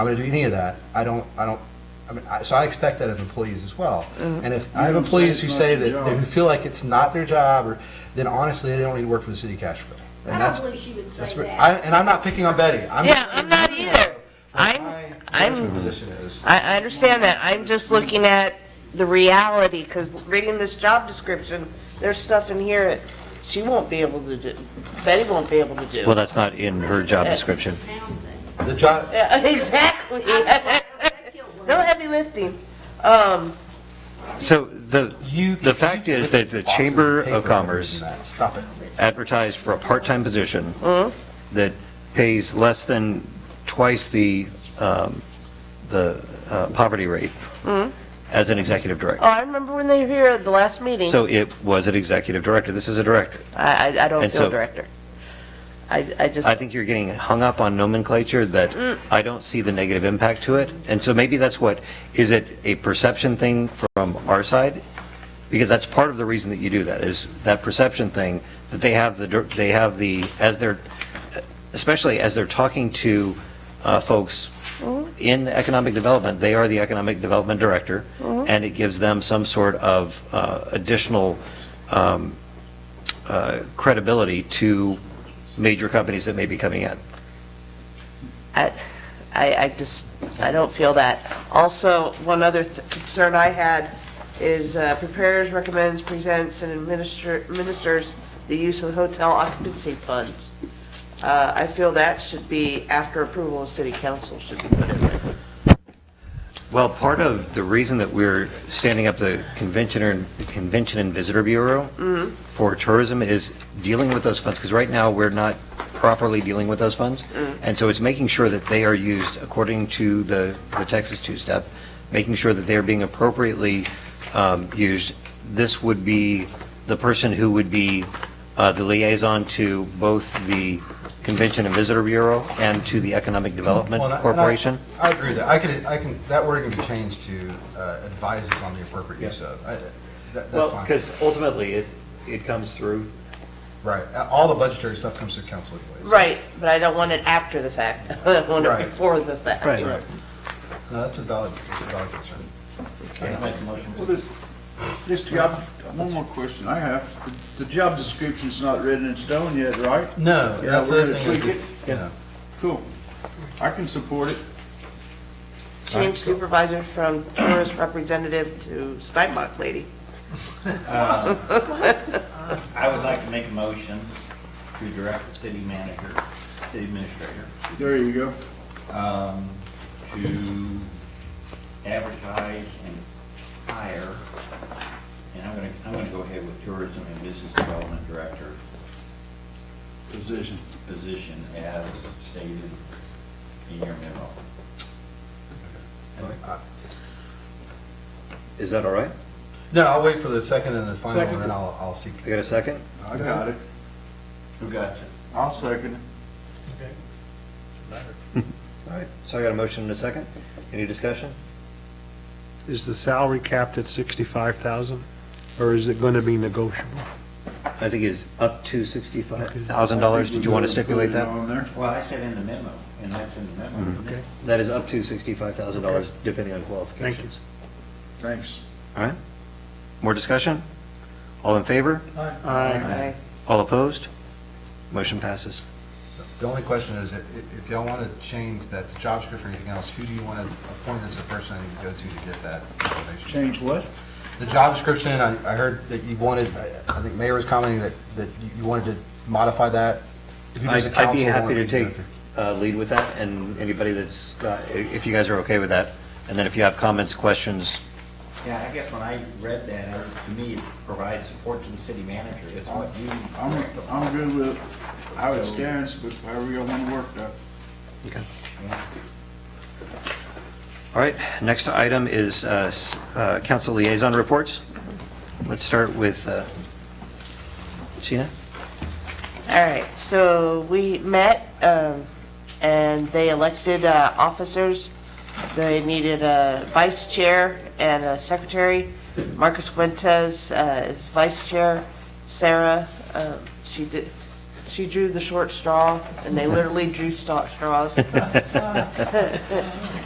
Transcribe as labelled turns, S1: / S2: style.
S1: I'm going to do any of that. I don't, I don't, I mean, I, so I expect that of employees as well.
S2: Uh,
S1: And if I have
S3: You don't say
S1: employees
S3: it's
S1: who
S3: not
S1: say
S3: your
S1: that,
S3: job.
S1: who feel like it's not their job, or, then honestly, they don't need to work for the city of Cashville. And
S4: I
S1: that's,
S4: don't believe she would
S1: that's,
S4: say
S1: what-
S4: that.
S1: I, and I'm not picking on Betty. I'm
S2: Yeah,
S1: just-
S2: I'm not either. I'm-
S1: My
S2: I'm-
S3: Mm-hmm.
S1: judgment Position is,
S2: I, I understand that. I'm just looking at the reality, because reading this job description, there's stuff in here that she won't be able to do, Betty won't be able to do.
S5: Well, that's not in her job description.
S1: the job,
S2: Yeah, Exactly. No heavy lifting. Um,
S5: So the,
S1: you.
S5: the fact
S1: you
S5: is
S1: put
S5: that the
S1: boxes
S5: Chamber
S1: of paper
S5: of Commerce
S1: in that. Stop it.
S5: advertised for a part-time position that pays less than twice the, um, the uh, poverty rate as an executive
S2: oh,
S5: director.
S2: I remember when they were here at the last meeting.
S5: So it was an executive director. This is a director.
S2: I, I, I don't
S5: And
S2: feel
S5: so-
S2: director. I, I just,
S5: I think you're getting hung up on nomenclature that I don't see the negative impact to it. And so maybe that's what, is it a perception thing from our side? Because that's part of the reason that you do that, is that perception thing, that they have the, dir- they have the, as they're, especially as they're talking to uh, folks in economic development, they are the economic development director, and it gives them some sort of uh, additional um, uh, credibility to major companies that may be coming in.
S2: I, I I just, I don't feel that. Also, one other th- concern I had is uh, prepares, recommends, presents, and administer- administers the use of hotel occupancy funds. Uh, I feel that should be, after approval of city council, should be put in there.
S5: Well, part of the reason that we're standing up the Convention and, Convention and Visitor Bureau for tourism is dealing with those funds, because right now, we're not properly dealing with those funds. And so it's making sure that they are used according to the, the Texas two-step, making sure that they are being appropriately um, used. This would be the person who would be uh, the liaison to both the Convention and Visitor Bureau and to the Economic Development
S1: Well, and I- and I-
S5: Corporation.
S1: I agree with that. I could, I can, that word can be changed to uh, advises on the appropriate use of. I- that- That's
S5: Well,
S1: fine.
S5: because ultimately, it, it comes through.
S1: Right. All the budgetary stuff comes through council anyways.
S2: Right, but I don't want it after the fact. I want it
S1: Right.
S2: before the fact.
S5: Right.
S1: Right. No, that's a valid, that's a valid concern.
S3: Well, the- This job, one more question I have. The the job description's not written in stone yet, right?
S1: No,
S3: Yeah,
S1: that's the
S3: we're
S1: other
S3: gonna
S1: thing is,
S3: tweak
S1: if-
S3: it.
S1: yeah.
S3: Cool. I can support it.
S2: Change supervisor from tourist representative to Steinbach lady.
S6: I would like to make a motion to direct the city manager, city administrator,
S3: There you go.
S6: um, to advertise and hire, and I'm gonna, I'm gonna go ahead with tourism and business development director
S3: Position.
S6: position as stated in your memo.
S1: I-
S5: Is that all right?
S1: No, I'll wait for the second and the final,
S3: Second.
S1: and then I'll, I'll see.
S5: I got a second?
S3: I got it.
S6: Who got it?
S3: I'll second it.
S5: All right, so I got a motion and a second. Any discussion?
S7: Is the salary capped at 65,000, or is it going to be negotiable?
S5: I think it's up to $65,000. Did you want to stipulate
S3: Put it
S5: that?
S3: on there.
S6: Well, I said in the memo, and that's in the memo. isn't it?
S7: Okay.
S5: That is up to $65,000, depending on qualifications.
S3: Thanks.
S5: All right, more discussion? All in favor?
S7: Aye.
S2: Okay.
S5: All opposed? Motion passes.
S1: The only question is, if, if y'all want to change that job description or anything else, who do you want to appoint as the person I need to go to to get that information?
S3: Change what?
S1: The job description, I, I heard that you wanted, I I think Mayor was commenting that, that you- you wanted to modify that. Who does
S5: I'd
S1: the
S5: I'd be
S1: council
S5: happy
S1: want
S5: to
S1: me go
S5: take
S1: through?
S5: uh, lead with that, and anybody that's, uh, i- if you guys are okay with that, and then if you have comments, questions,
S6: Yeah, I guess when I read that, I- to me, it provides support to the city manager. It's what you.
S3: I'm, I'm good with how it stands, but however y'all want to work that.
S6: Yeah.
S5: All right, next item is uh, s- uh, council liaison reports. Let's start with uh, Sheena.
S2: All right, so we met, um, and they elected uh, officers. They needed a vice chair and a secretary. Marcus Fuentes uh, is vice chair. Sarah, um, she did, She drew the short straw, and they literally drew straw- straws.